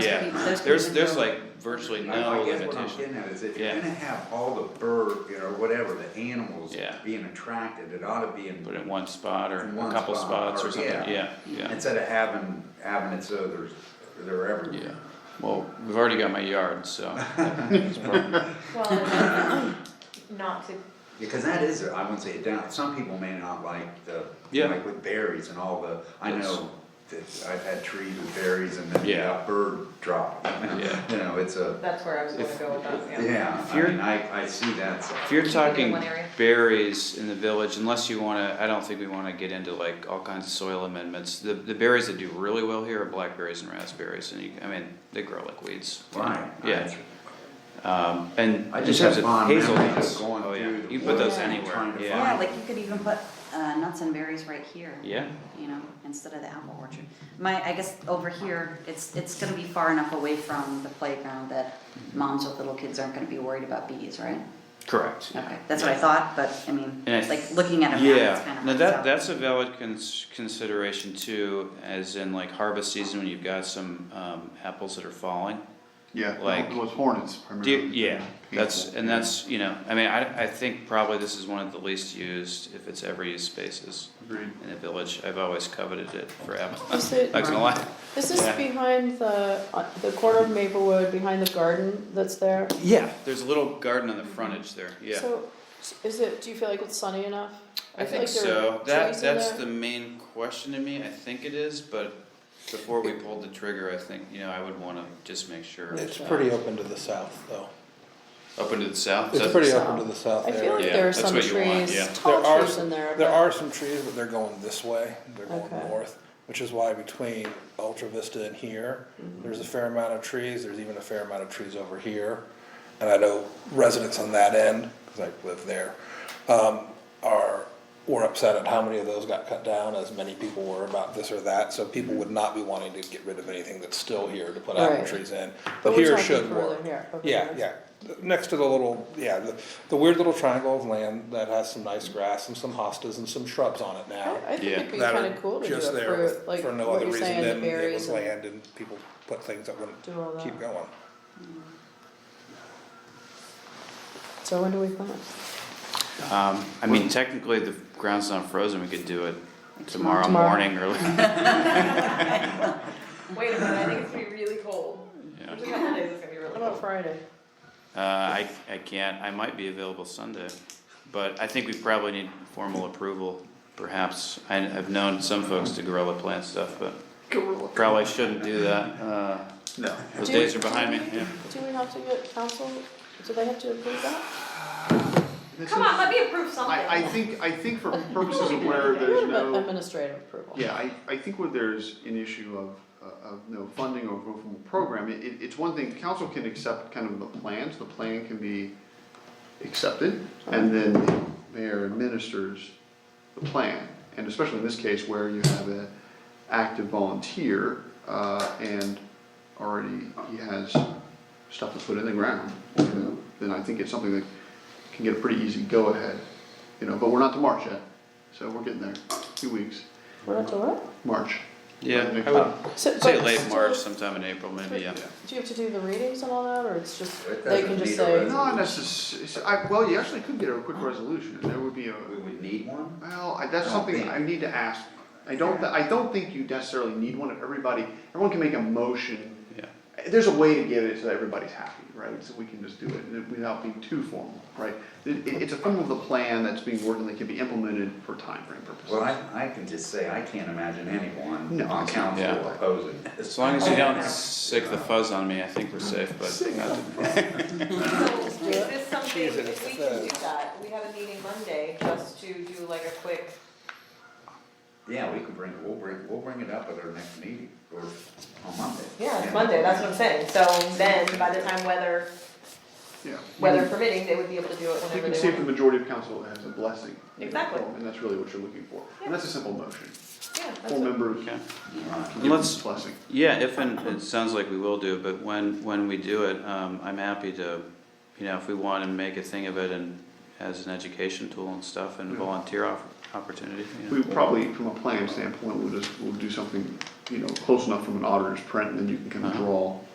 Yeah, Those there's, people there's know. like virtually I- no I guess what I'm limitation. getting at is if Yeah. you're gonna have all the bird, you know, whatever, the animals Yeah. being attracted, it ought to be in, Put it in one spot or In a one couple spot, spots or or- something, yeah, yeah. yeah, instead of having, having it so there's, they're yeah. everywhere. Well, we've already got my yard, so. that's a problem. Well, and not to, Because that is, I wouldn't say it down, some people may not like the, Yeah. like with berries and all the, I Yes. know that I've had trees with berries and then you Yeah. got bird drop. Yeah. You know, it's a, that's where I was gonna go with that, yeah. yeah, If I you're- mean, I, I see that, so- If you're Keep it in talking one area. berries in the village, unless you wanna, I don't think we wanna get into like all kinds of soil amendments. The, the berries that do really well here are blackberries and raspberries, and you, I mean, they grow like weeds. you know? right. Yeah, um, and. I in just terms have of fond memories of hazelnuts, going oh, yeah. through the You can put those woods and anywhere, trying to yeah, Yeah, like you could even put uh, nuts and berries right here. yeah, You know, instead of the apple orchard. My, I guess over here, it's, it's gonna be far enough away from the playground that moms with little kids aren't gonna be worried about bees, right? correct. Okay, that's what I thought, but I mean, And I like looking at a map, it's kind Yeah, of. now that, that's a valid cons- consideration too, as in like harvest season when you've got some, um, apples that are falling. Yeah, Like- it was hornets Do, primarily. you- Mm-hmm. yeah, that's, People. and that's, you know, I mean, I, I think probably this is one of the least used, if it's ever used spaces Agreed. in the village, I've always coveted it for apples, Is it, not gonna lie. is this Yeah. behind the, uh, the corner of Maplewood, behind the garden that's there? Yeah. There's a little garden on the frontage there, yeah. So, s- is it, do you feel like it's sunny enough? I feel think like there are so, that, trees in that's the there. main question to me, I think it is, but before we pulled the trigger, I think, you know, I would wanna just make sure. It's pretty open to the south, though. Up into the south? It's That- pretty south. open to the south I feel area. like Yeah, there are that's some what you want, trees, yeah. There tall are, trees in there, there but are some trees, but they're going this way, they're Okay. going north, which is why between Ultra Vista and here, Mm-hmm. there's a fair amount of trees, there's even a fair amount of trees over here. And I know residents on that end, because I live there, um, are, were upset at how many of those got cut down, as many people were about this or that, so people would not be wanting to get rid of anything that's still here to put apple Right. trees in. But But we're here talking should further work. here, over Yeah, here. yeah, next to the little, yeah, the, the weird little triangle of land that has some nice grass and some hostas and some shrubs on it now. I, I think Yeah. it'd be that are kinda cool to do it just there for, with- like, for no what other you're reason saying, the than It berries was and, land and people put things that wouldn't Do all keep that. going. so when do we plant? Um, I mean, technically, the ground's not frozen, we could do it tomorrow tomorrow. morning or, Wait a minute, I think it's gonna be really cold. yeah. We got days it's gonna be really What about cold. Friday? Uh, I, I can't, I might be available Sunday, but I think we probably need formal approval, perhaps. I, I've known some folks to gorilla plant stuff, but probably shouldn't do that, uh, No. those Do we- days are behind me, do we- yeah. Do we have to get council, do they have to approve that? This Come is- on, let me approve something. I, I think, I think for purposes of where there's But no, Administrative approval. yeah, I, I think where there's an issue of, uh, of no funding or approval from a program, it, it's one thing, council can accept kind of the plans, the plan can be accepted, and then the mayor administers the plan. And especially in this case where you have an active volunteer, uh, and already he has stuff to put in the ground, you know, then I think it's something that can get a pretty easy go-ahead, you know, but we're not to March yet, so we're getting there, few weeks, We're not to what? March. Yeah, I Uh, would So- say but late do March, we- sometime in April, maybe, yeah. Do you have to do the readings and all that, or it's just, It they can doesn't just need a say? res- Not necess, I, well, you actually could get a quick resolution, and there would be a, We would need one? well, I, that's I don't something think- I need to ask. I don't, thi- I don't think you necessarily need one, if everybody, everyone can make a motion. Yeah. There's a way to give it so that everybody's happy, right, so we can just do it without being too formal, right? It, it- it's a form of the plan that's being worked and that can be implemented for time frame purposes. Well, I, I can just say, I can't imagine anyone No. on council Yeah. opposing this. As long as you don't sick the fuzz on me, I think we're safe, but not to So is this something, Cheese in if we its can do thighs. that, we have a meeting Monday just to do like a quick, Yeah, we can bring, we'll bring, we'll bring it up at our next meeting, or on Monday. yeah, it's Monday, that's what I'm saying. So then by the time weather, Yeah. weather permitting, they would be able to do it whenever You they can want. see if the majority of council has a blessing. in the Exactly. form, And that's really what you're looking for. And that's a simple motion. Yeah, that's Four what- members, Okay. Right. give Let's- blessing. Yeah, if and it sounds like we will do, but when when we do it, um, I'm happy to, you know, if we want to make a thing of it and as an education tool and stuff and Yeah. volunteer op- opportunity. You We know. probably, from a planning standpoint, we'll just, we'll do something, you know, close enough from an auditor's print, and then you can kind of Uh-huh. draw